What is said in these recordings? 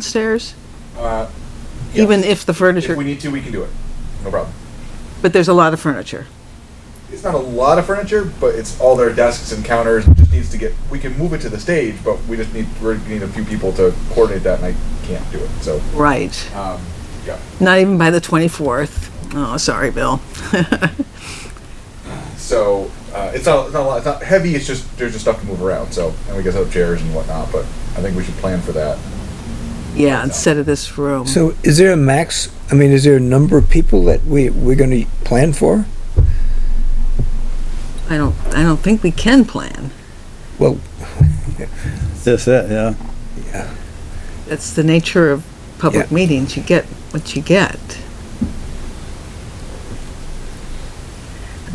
downstairs? Uh, yes. Even if the If we furniture, need to, we can do it. No problem. but there's a lot of furniture. It's not a lot of furniture, but it's all their desks and counters. It just needs to get. We can move it to the stage, but we just need we need a few people to coordinate that, and I can't do it. So, Right. um, yeah. Not even by the 24th. Oh, sorry, Bill. So uh, it's not it's not a lot. It's not heavy. It's just there's just stuff to move around. So and we get up chairs and whatnot. But I think we should plan for that. Yeah, instead of this room. So is there a max, I mean, is there a number of people that we, we're gonna plan for? I don't, I don't think we can plan. Well, That's it, yeah. That's the nature of public Yeah. meetings. You get what you get.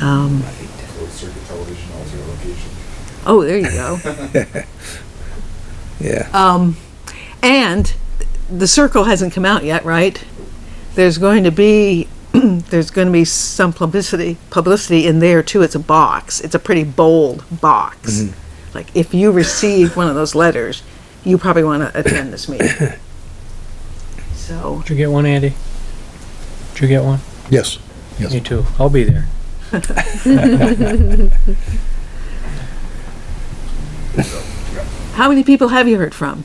Um, Closed circuit television, all zero location. oh, there you go. yeah, Um, and the circle hasn't come out yet, right? There's going to be, there's going to be some publicity, publicity in there too. It's a box. It's a pretty bold box. Like if you receive one of those letters, you probably want to attend this meeting. So, Did you get one, Andy? Did you get one? Yes. Yes. Me too. I'll be there. how many people have you heard from?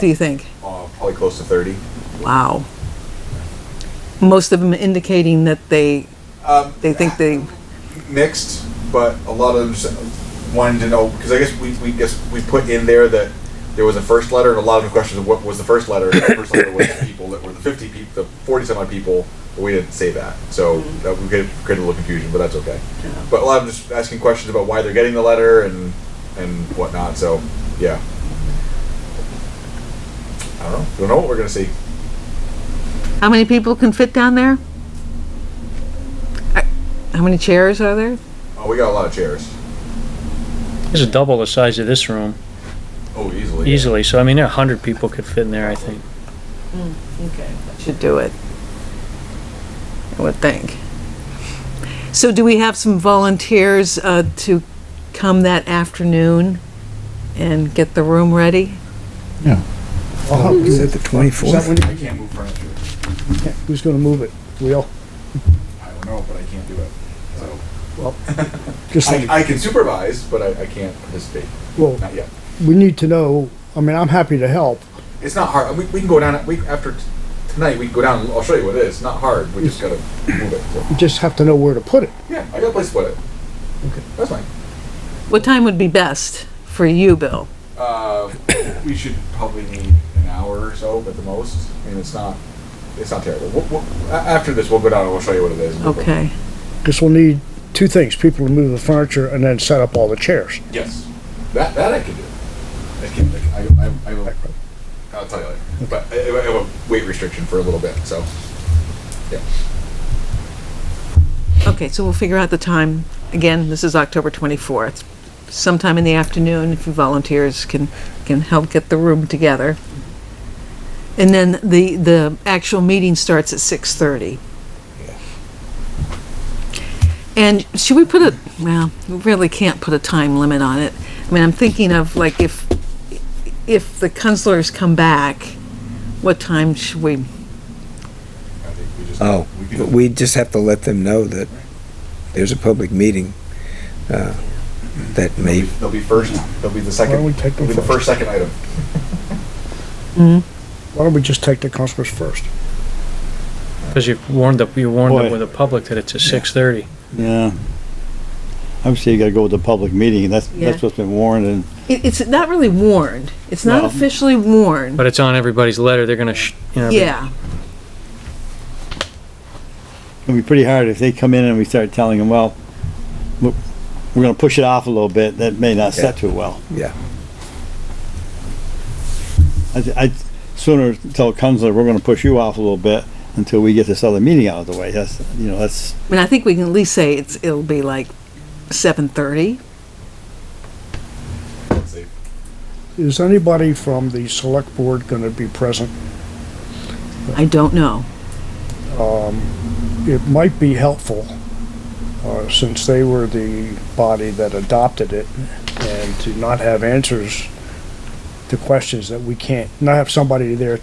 Do you think? Uh, probably close to thirty. Wow. Most of them indicating that they Um, they think they mixed, but a lot of them just wanted to know because I guess we, we guess we put in there that there was a first letter and a lot of the questions of what was the first letter. And the first letter was the people that were the fifty people, the forty some odd people. But we didn't say that, so that we could create a little confusion, but that's okay. But a lot of them just asking questions about why they're getting the letter and and whatnot. So yeah, I don't know. Don't know what we're gonna see. How many people can fit down there? I- How many chairs are there? Oh, we got a lot of chairs. This is double the size of this room, Oh, easily. yeah. easily. So I mean, a hundred people could fit in there, I think. Okay. Should do it. I would think. So do we have some volunteers uh, to come that afternoon and get the room ready? is that the Is that twenty-fourth? when I can't move furniture. you- Who's gonna move it? Will? I don't know, but I can't do it. So. Just like, I, I can supervise, but I, I can't participate. well, Not yet. we need to know, I mean, I'm happy to help. It's not hard. We, we can go down. We after t- tonight, we can go down. and I'll show you what it is. It's not hard. We just gotta move it. So. You just have to know where to put it. Yeah, I got a place to put it. Okay, that's fine. What time would be best for you, Bill? Uh, we should probably need an hour or so at the most. I mean, it's not. It's not terrible. We'll, we'll, a- after this, we'll go down and we'll show you what it is. Okay. Cause we'll need two things, people to move the furniture and then set up all the chairs. Yes, that that I can do. I can. I, I, I will. I'll tell you later. But I, I have a weight restriction for a little bit, so. Okay, so we'll figure out the time. Again, this is October 24th. Sometime in the afternoon, if volunteers can, can help get the room together. And then the, the actual meeting starts at 6:30. And should we put a, well, we really can't put a time limit on it. I mean, I'm thinking of like if, if the counselors come back, what time should we, I think we just. Oh, we but can, we just have to let them know that there's a public meeting, uh, that may, they'll be first. They'll be the Why don't we second. take They'll them be the first first? second item. Why don't we just take the counselors first? Because you warned up, you warned Boy. up with the public that it's at six thirty. Yeah. Obviously, you gotta go with the public meeting, that's, Yeah. that's what's been warned, and it, it's not really warned. It's not No. officially warned. But it's on everybody's letter. They're gonna, sh- you know. be- Yeah, it'll be pretty hard if they come in and we start telling them, well, we're we're gonna push it off a little bit, that may not set too well. yeah. I, I sooner tell Counselor, we're gonna push you off a little bit until we get this other meeting out of the way, that's, you know, that's, I mean, I think we can at least say it's, it'll be like seven thirty. Let's see. Is anybody from the select board gonna be present? I don't know. It might be helpful, uh, since they were the body that adopted it, and to not have answers to questions that we can't, not have somebody there